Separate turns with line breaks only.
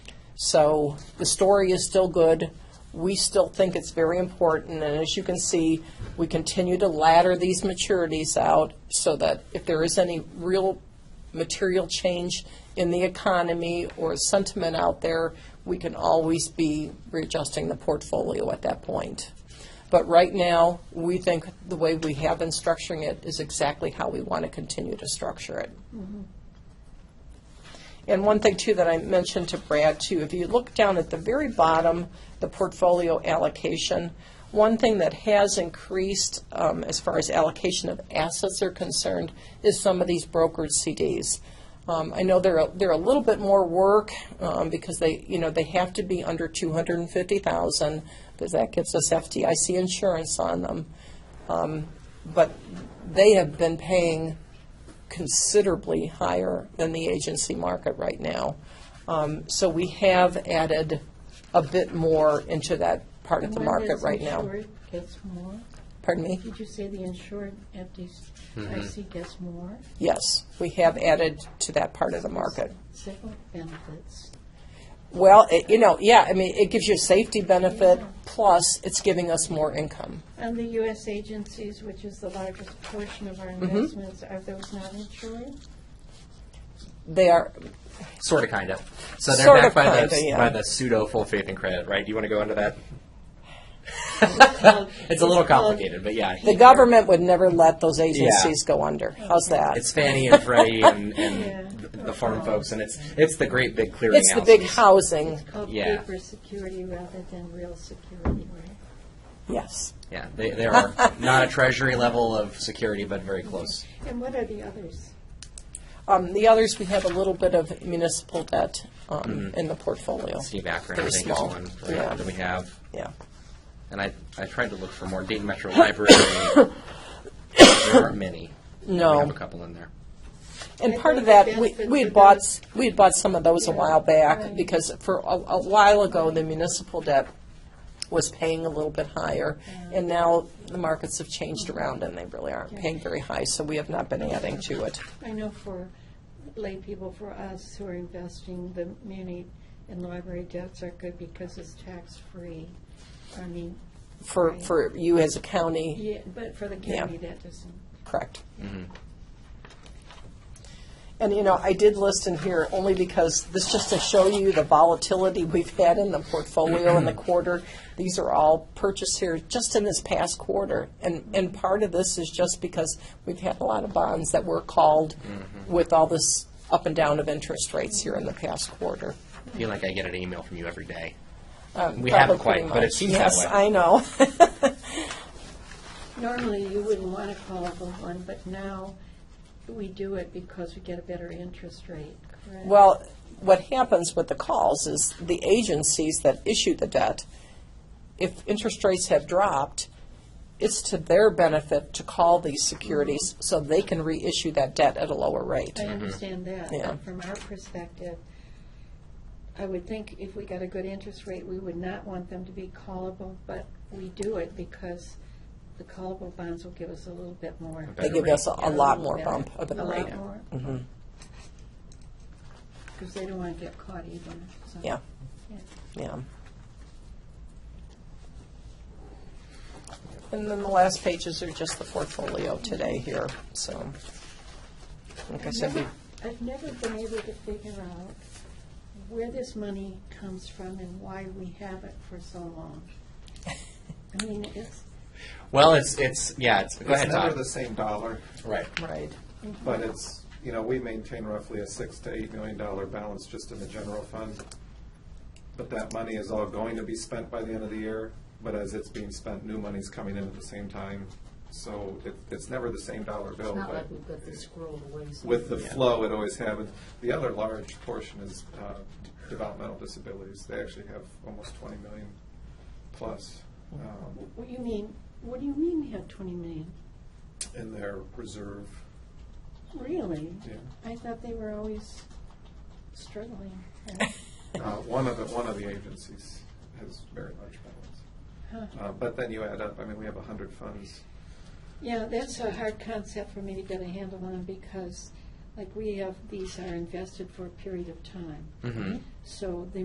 So the story is still good. We still think it's very important, and as you can see, we continue to ladder these maturities out so that if there is any real material change in the economy or sentiment out there, we can always be readjusting the portfolio at that point. But right now, we think the way we have been structuring it is exactly how we want to continue to structure it. And one thing, too, that I mentioned to Brad, too, if you look down at the very bottom, the portfolio allocation, one thing that has increased um, as far as allocation of assets are concerned is some of these brokered CDs. Um, I know they're, a- they're a little bit more work um, because they, you know, they have to be under 250,000 because that gives us FDIC insurance on them. Um, But they have been paying considerably higher than the agency market right now. Um, So we have added a bit more into that part of the market right now.
When this insured gets more,
Pardon me?
did you say the insured FDIC gets more?
Yes, we have added to that part of the market.
Several benefits.
Well, it- you know, yeah, I mean, it gives you a safety benefit, plus it's giving us more income.
And the U.S. agencies, which is the largest portion of our
Mm-hmm.
investments, are those not insured?
They are,
Sort of, kind of. So they're
Sorta,
backed by the
kinda, yeah.
by the pseudo full faith and credit, right? Do you want to go into that?
called-
it's a little
it's called-
complicated, but yeah.
the government would never let those agencies go under. How's that?
It's Fannie and Freddie and,
Yeah.
and the the farm folks, and it's it's the great big clearinghouse.
It's the big housing,
It's called
Yeah.
Oh, paper security rather than real security, right?
yes.
Yeah, they, they are not a treasury level of security, but very close.
And what are the others?
Um, The others, we have a little bit of municipal debt
Mm.
um, in the portfolio.
Steve Akron, I
Very
think, is
small.
one right,
Yeah.
that we have.
Yeah.
And I, I tried to look for more Dayton Metro Library. there aren't many.
No.
We have a couple in there.
And
I
part of
think the
that, we,
benefit
we
for
had bought,
those-
s- we had bought some of those a while back,
Right.
because for a, a while ago, the municipal debt was paying a little bit higher, and now the markets have changed around, and they really aren't paying very high, so we have not been adding to it.
I know for lay people, for us who are investing, the muni and library debts are good because it's tax-free. I mean,
For,
Right.
for you as a county,
yeah, but for the county, that doesn't.
correct? Mm-hmm. And, you know, I did list in here only because this just to show you the volatility we've had in the portfolio in the quarter. These are all purchased here just in this past quarter. And, and part of this is just because we've had a lot of bonds that were called
Mm-hmm.
with all this up and down of interest rates here in the past quarter.
I feel like I get an email from you every day.
Uh,
we haven't
Probably
quite, but it
much.
seems
Yes,
that way.
I know.
Normally, you wouldn't want to call for one, but now we do it because we get a better interest rate, correct?
Well, what happens with the calls is the agencies that issue the debt, if interest rates have dropped, it's to their benefit to call these securities so they can reissue that debt at a lower rate.
I understand that.
Yeah.
But from our perspective, I would think if we got a good interest rate, we would not want them to be callable, but we do it because the callable bonds will give us a little bit more.
They give us a a lot more bump of
A
a rate. Mm-hmm.
lot more. Because they don't want to get caught either, so.
Yeah,
Yeah.
yeah. And then the last pages are just the portfolio today here, so. Like I said, we-
I've never been able to figure out where this money comes from and why we have it for so long. I mean, it's,
Well, it's, it's, yeah, it's, go
It's
ahead,
never
Todd.
the same dollar,
Right.
right,
but it's, you know, we maintain roughly a six to eight million dollar balance just in the general fund. But that money is all going to be spent by the end of the year, but as it's being spent, new money's coming in at the same time. So it, it's never the same dollar bill,
Not
but
like we've got this scroll away.
with the flow, it always happens. The other large portion is uh, developmental disabilities. They actually have almost twenty million plus um,
what do you mean, what do you mean you have twenty million?
in their reserve,
Really?
yeah.
I thought they were always struggling.
Uh, One of the, one of the agencies has very large balance.
Huh.
Uh, But then you add up, I mean, we have 100 funds.
Yeah, that's a hard concept for me to get a handle on because, like, we have, these are invested for a period of time.
Mm-hmm.
So the